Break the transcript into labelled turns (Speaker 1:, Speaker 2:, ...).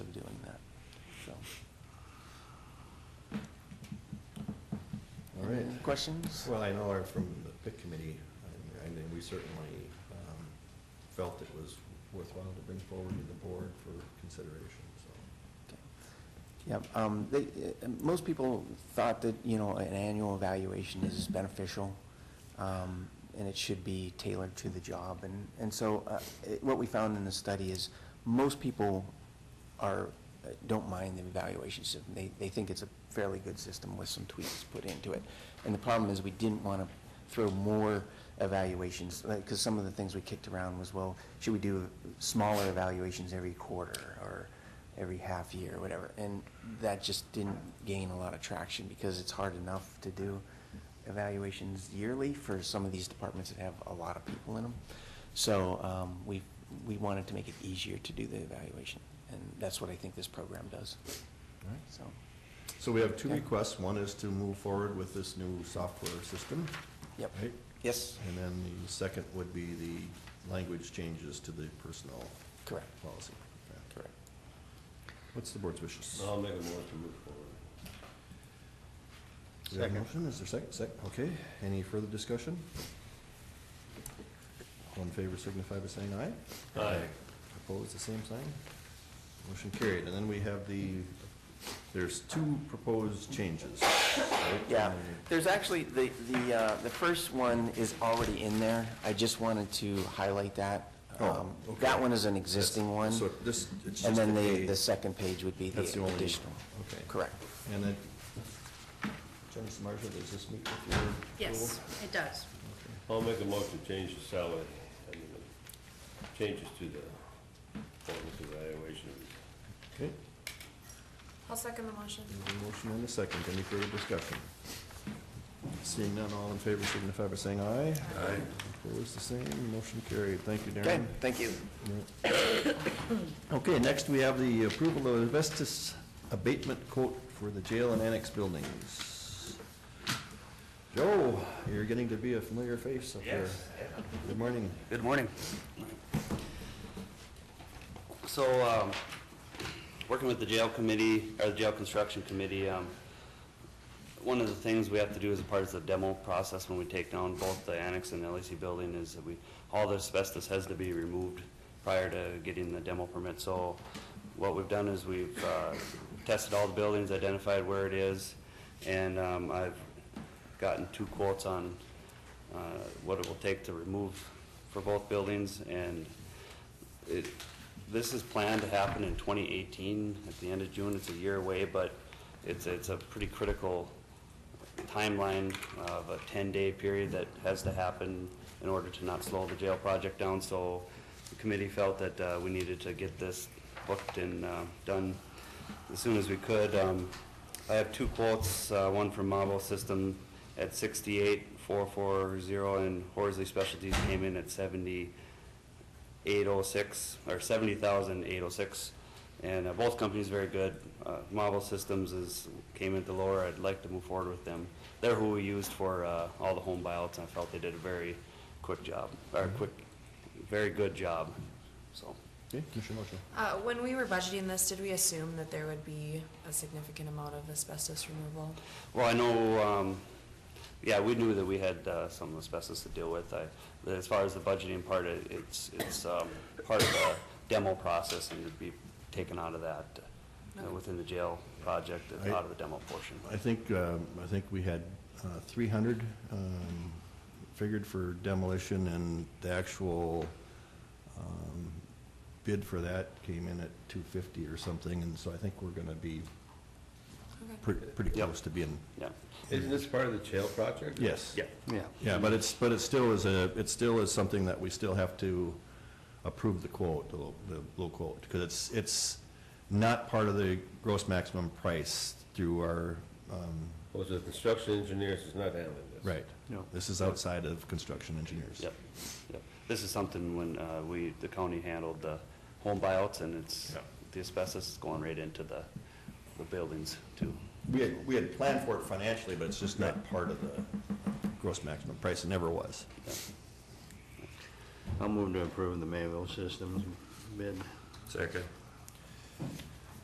Speaker 1: questions?
Speaker 2: Well, I know our- from the PIC committee, I mean, we certainly um, felt it was worthwhile to bring forward to the board for consideration, so.
Speaker 1: Yeah, um, they, uh, most people thought that, you know, an annual evaluation is beneficial, um, and it should be tailored to the job, and, and so, uh, it- what we found in the study is, most people are, uh, don't mind the evaluation system, they, they think it's a fairly good system with some tweaks put into it. And the problem is, we didn't wanna throw more evaluations, like, cause some of the things we kicked around was, well, should we do smaller evaluations every quarter, or, every half year, or whatever, and that just didn't gain a lot of traction, because it's hard enough to do evaluations yearly for some of these departments that have a lot of people in them. So, um, we, we wanted to make it easier to do the evaluation, and that's what I think this program does, so.
Speaker 2: So we have two
Speaker 1: Yeah.
Speaker 2: requests. One is to move forward with this new software system,
Speaker 1: Yep.
Speaker 2: right?
Speaker 1: Yes,
Speaker 2: And then the second would be the language changes to the personnel
Speaker 1: correct,
Speaker 2: policy. Okay.
Speaker 1: correct.
Speaker 2: What's the board's wishes?
Speaker 3: I'll make a motion to move forward.
Speaker 2: We have a
Speaker 4: Second.
Speaker 2: Motion, is there a second? Second, okay. Any further discussion? All in favor signify by saying aye.
Speaker 3: Aye.
Speaker 2: Opposed, the same sign. Motion carried. And then we have the, there's two proposed changes. right?
Speaker 1: Yeah, there's actually, the, the, uh, the first one is already in there, I just wanted to highlight that.
Speaker 2: Oh,
Speaker 1: Um,
Speaker 2: okay.
Speaker 1: That one is an existing one,
Speaker 2: So this, it's just.
Speaker 1: and then
Speaker 2: a-
Speaker 1: the, the second page would be the
Speaker 2: That's the only-
Speaker 1: additional.
Speaker 2: Okay.
Speaker 1: Correct.
Speaker 2: And then, Jennifer Marshall, does this meet with your?
Speaker 5: Yes,
Speaker 2: goal?
Speaker 5: it does.
Speaker 2: Okay.
Speaker 3: I'll make a motion to change the salary, I mean, the changes to the performance evaluation.
Speaker 2: Okay,
Speaker 5: I'll second the motion.
Speaker 2: there's a motion and a second. Any further discussion? Seeing none, all in favor signify by saying aye.
Speaker 3: Aye.
Speaker 2: Opposed, the same, motion carried. Thank you,
Speaker 1: Okay,
Speaker 2: Darren.
Speaker 1: thank you.
Speaker 2: Okay, next we have the approval of asbestos abatement quote for the jail and annex buildings. Joe, you're getting to be a familiar face up here. Good morning.
Speaker 6: Good morning. So, um, working with the jail committee, or the jail construction committee, um, one of the things we have to do as a part of the demo process when we take down both the annex and the LEC building is that we, all the asbestos has to be removed prior to getting the demo permit. So what we've done is we've uh, tested all the buildings, identified where it is, and um, I've gotten two quotes on uh, what it will take to remove for both buildings, and it, this is planned to happen in 2018, at the end of June, it's a year away, but it's, it's a pretty critical timeline of a 10-day period that has to happen in order to not slow the jail project down, so the committee felt that uh, we needed to get this booked and uh, done as soon as we could. Um, I have two quotes, uh, one from Mabo System at 68,440, and Horsley Specialties came in at 70, 806, or 70,806, and uh, both companies very good. Uh, Marvel Systems is, came in at the lower, I'd like to move forward with them. They're who we used for uh, all the home buyouts, and I felt they did a very quick job, or quick, very good job, so.
Speaker 2: Okay, Commissioner Marshall.
Speaker 5: Uh, when we were budgeting this, did we assume that there would be a significant amount of asbestos removal?
Speaker 6: Well, I know, um, yeah, we knew that we had, uh, some asbestos to deal with. I, but as far as the budgeting part, it- it's, it's, um, part of the demo process and it'd be taken out of that, uh,
Speaker 5: Okay.
Speaker 6: within the jail project, and out of the demo portion.
Speaker 2: I think, um, I think we had uh, 300 um, figured for demolition, and the actual um, bid for that came in at 250 or something, and so I think we're going to be pre- pretty
Speaker 6: Yep.
Speaker 2: close to being,
Speaker 6: Yeah,
Speaker 3: Isn't this part of the jail project?
Speaker 2: yes.
Speaker 6: yeah, yeah.
Speaker 2: Yeah, but it's, but it still is a, it still is something that we still have to approve the quote, the low, the low quote, because it's, it's not part of the gross maximum price through our, um,
Speaker 3: Was Oh, the construction engineers is not handling this?
Speaker 2: right.
Speaker 6: No.
Speaker 2: This is outside of construction engineers.
Speaker 6: Yep, yep. This is something when, uh, we, the county handled the home buyouts and it's,
Speaker 3: Yeah.
Speaker 6: the asbestos is going right into the, the buildings too.
Speaker 2: We had, we had planned for it financially, but it's just not part of the gross maximum price, it never was.
Speaker 4: I'll move to approve the Mayville Systems bid.
Speaker 3: Second.